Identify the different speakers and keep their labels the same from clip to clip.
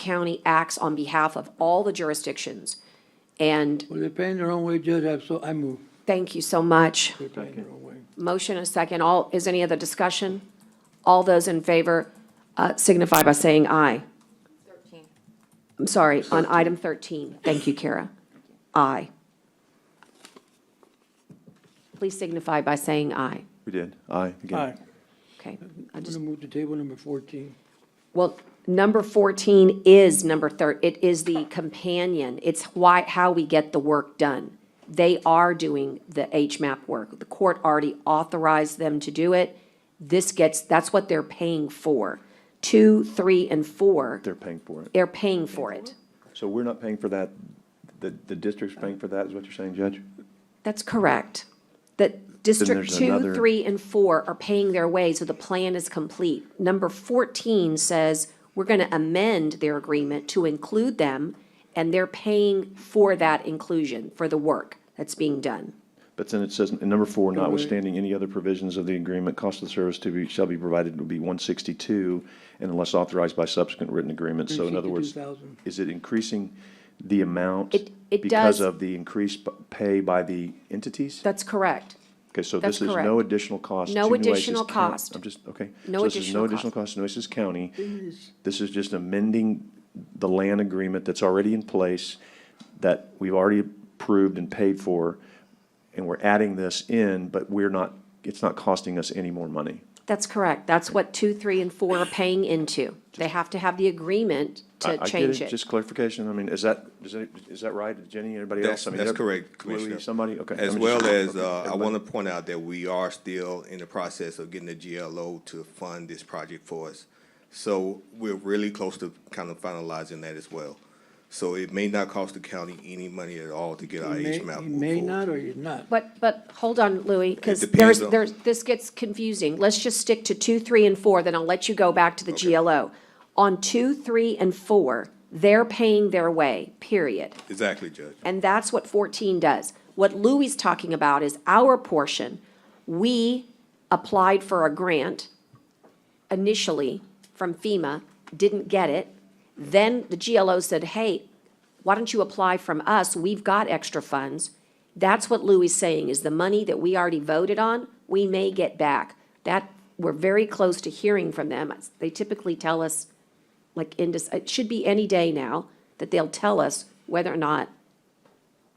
Speaker 1: County acts on behalf of all the jurisdictions. And
Speaker 2: Well, they're paying their own way, Judge, I so, I move,
Speaker 1: thank you so much.
Speaker 2: they're paying their own way.
Speaker 1: Motion and second. All, is any other discussion? All those in favor uh, signify by saying aye.
Speaker 3: Thirteen.
Speaker 1: I'm sorry, on item 13. Thank you, Kara. Aye. Please signify by saying aye.
Speaker 4: We did, aye, again.
Speaker 2: Aye.
Speaker 1: Okay. I
Speaker 2: I'm
Speaker 1: just
Speaker 2: gonna move to table number fourteen.
Speaker 1: Well, number 14 is number 13. it is the companion. It's why, how we get the work done. They are doing the HMAP work. The court already authorized them to do it. This gets, that's what they're paying for. Two, three, and four,
Speaker 4: They're paying for it.
Speaker 1: they're paying for it.
Speaker 4: So we're not paying for that, the, the district's paying for that, is what you're saying, Judge?
Speaker 1: That's correct. That District
Speaker 4: there's
Speaker 1: Two,
Speaker 4: another-
Speaker 1: Three, and Four are paying their way, so the plan is complete. Number fourteen says we're gonna amend their agreement to include them, and they're paying for that inclusion, for the work that's being done.
Speaker 4: But then it says, in number four, notwithstanding any other provisions of the agreement, cost of the service to be, shall be provided will be one sixty-two, and unless authorized by subsequent written agreement, so in other words,
Speaker 2: $162,000.
Speaker 4: is it increasing the amount?
Speaker 1: It- it does-
Speaker 4: Because of the increased p- pay by the entities?
Speaker 1: That's correct.
Speaker 4: Okay, so
Speaker 1: that's
Speaker 4: this is no
Speaker 1: correct.
Speaker 4: additional cost.
Speaker 1: No
Speaker 4: to Nueces
Speaker 1: additional
Speaker 4: Coun-
Speaker 1: cost.
Speaker 4: I'm just, okay.
Speaker 1: No
Speaker 4: So this is
Speaker 1: additional
Speaker 4: no
Speaker 1: cost.
Speaker 4: additional cost to Nueces County. This is just amending the land agreement that's already in place, that we've already approved and paid for, and we're adding this in, but we're not, it's not costing us any more money.
Speaker 1: That's correct. That's what Two, Three, and Four are paying into. They have to have the agreement
Speaker 4: I-
Speaker 1: to
Speaker 4: I get
Speaker 1: change it.
Speaker 4: Just clarification, I mean, is that, is that, is that right, Jenny, anybody else?
Speaker 5: That's,
Speaker 4: I mean,
Speaker 5: that's
Speaker 4: there-
Speaker 5: correct,
Speaker 4: Louis,
Speaker 5: Commissioner.
Speaker 4: Somebody, okay.
Speaker 5: As
Speaker 4: I'm just-
Speaker 5: well as,
Speaker 4: okay,
Speaker 5: uh, I
Speaker 4: everybody.
Speaker 5: want to point out that we are still in the process of getting the GLO to fund this project for us. So we're really close to kind of finalizing that as well. So it may not cost the county any money at all to get our
Speaker 2: He may-
Speaker 5: HMAP
Speaker 2: He
Speaker 5: moved
Speaker 2: may
Speaker 5: forward.
Speaker 2: not or he's not.
Speaker 1: But, but, hold on, Louis, because
Speaker 5: depends
Speaker 1: there's,
Speaker 5: on-
Speaker 1: there's, this gets confusing. Let's just stick to two, three, and four, then I'll let you go back to the GLO. On two, three, and four, they're paying their way, period.
Speaker 5: Exactly, Judge.
Speaker 1: And that's what fourteen does. What Louis is talking about is our portion. We applied for a grant initially from FEMA, didn't get it. Then the GLO said, hey, why don't you apply from us? We've got extra funds. That's what Louis is saying, is the money that we already voted on, we may get back. That, we're very close to hearing from them. They typically tell us, like, in, Dec- it should be any day now, that they'll tell us whether or not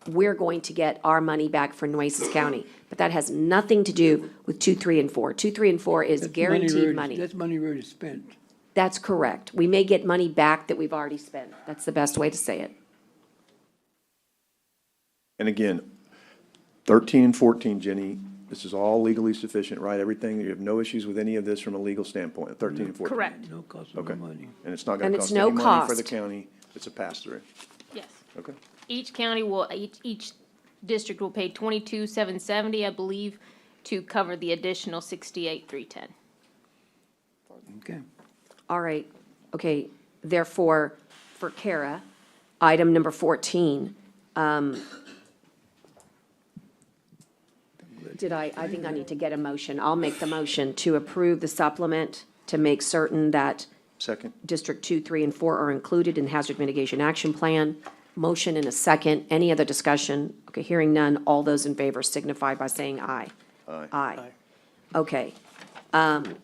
Speaker 1: we're going to get our money back for Nueces County. But that has nothing to do with two, three, and four. Two, three, and four is
Speaker 2: That's we
Speaker 1: guaranteed
Speaker 2: already-
Speaker 1: money.
Speaker 2: That's money we already spent.
Speaker 1: That's correct. We may get money back that we've already spent. That's the best way to say it.
Speaker 4: And again, thirteen and fourteen, Jenny, this is all legally sufficient, right? Everything, you have no issues with any of this from a legal standpoint, thirteen and fourteen?
Speaker 6: Correct,
Speaker 2: No cost of
Speaker 4: Okay,
Speaker 2: no money.
Speaker 4: and it's not
Speaker 1: And
Speaker 4: gonna
Speaker 1: it's
Speaker 4: cost
Speaker 1: no
Speaker 4: any money for the
Speaker 1: cost.
Speaker 4: county, it's a pass-through,
Speaker 6: yes.
Speaker 4: okay?
Speaker 6: Each county will, each, each district will pay twenty-two, seven seventy, I believe, to cover the additional sixty-eight, three ten.
Speaker 2: Okay.
Speaker 1: All right, okay, therefore, for Kara, item number fourteen, um, did I, I think I need to get a motion. I'll make the motion to approve the supplement to make certain that
Speaker 4: Second,
Speaker 1: District two, three, and four are included in Hazard Mitigation Action Plan. Motion in a second. Any other discussion? Okay, hearing none. All those in favor signify by saying aye. Aye. Aye. Okay. Um,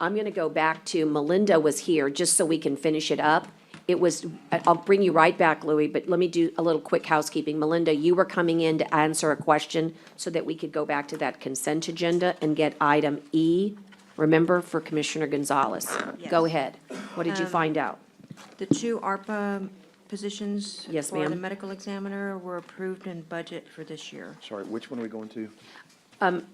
Speaker 1: I'm going to go back to Melinda was here, just so we can finish it up. It was, I- I'll bring you right back, Louis, but let me do a little quick housekeeping. Melinda, you were coming in to answer a question so that we could go back to that consent agenda and get item E, remember, for Commissioner Gonzalez. Go
Speaker 7: Yes.
Speaker 1: ahead. What did you find out?
Speaker 7: The two ARPA positions
Speaker 1: Yes,
Speaker 7: for the
Speaker 1: ma'am.
Speaker 7: medical examiner were approved in budget for this year.
Speaker 4: sorry, which one are we going to?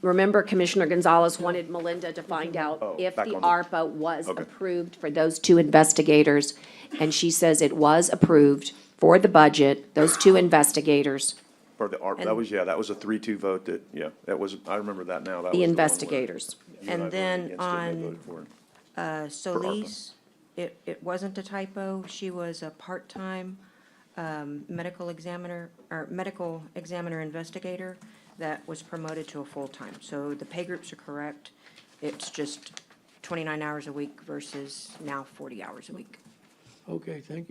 Speaker 1: Remember Commissioner Gonzalez wanted Melinda to find out if
Speaker 4: Oh, back
Speaker 1: the
Speaker 4: on the-
Speaker 1: ARPA was
Speaker 4: Okay.
Speaker 1: approved for those two investigators. And she says it was approved for the budget, those two investigators,
Speaker 4: For the ARP, that was, yeah, that was a three-two vote that, yeah, that was, I remember that now, that was.
Speaker 1: the
Speaker 4: one where
Speaker 1: investigators.
Speaker 4: you I
Speaker 7: And
Speaker 4: voted
Speaker 7: then
Speaker 4: against it and they
Speaker 7: on-
Speaker 4: voted for it.
Speaker 7: Uh, Solis, it, it wasn't a typo, she was a part-time um, medical examiner, or medical examiner investigator that was promoted to a full-time. So the pay groups are correct, it's just 29 hours a week versus now 40 hours a week.
Speaker 2: Okay, thank you.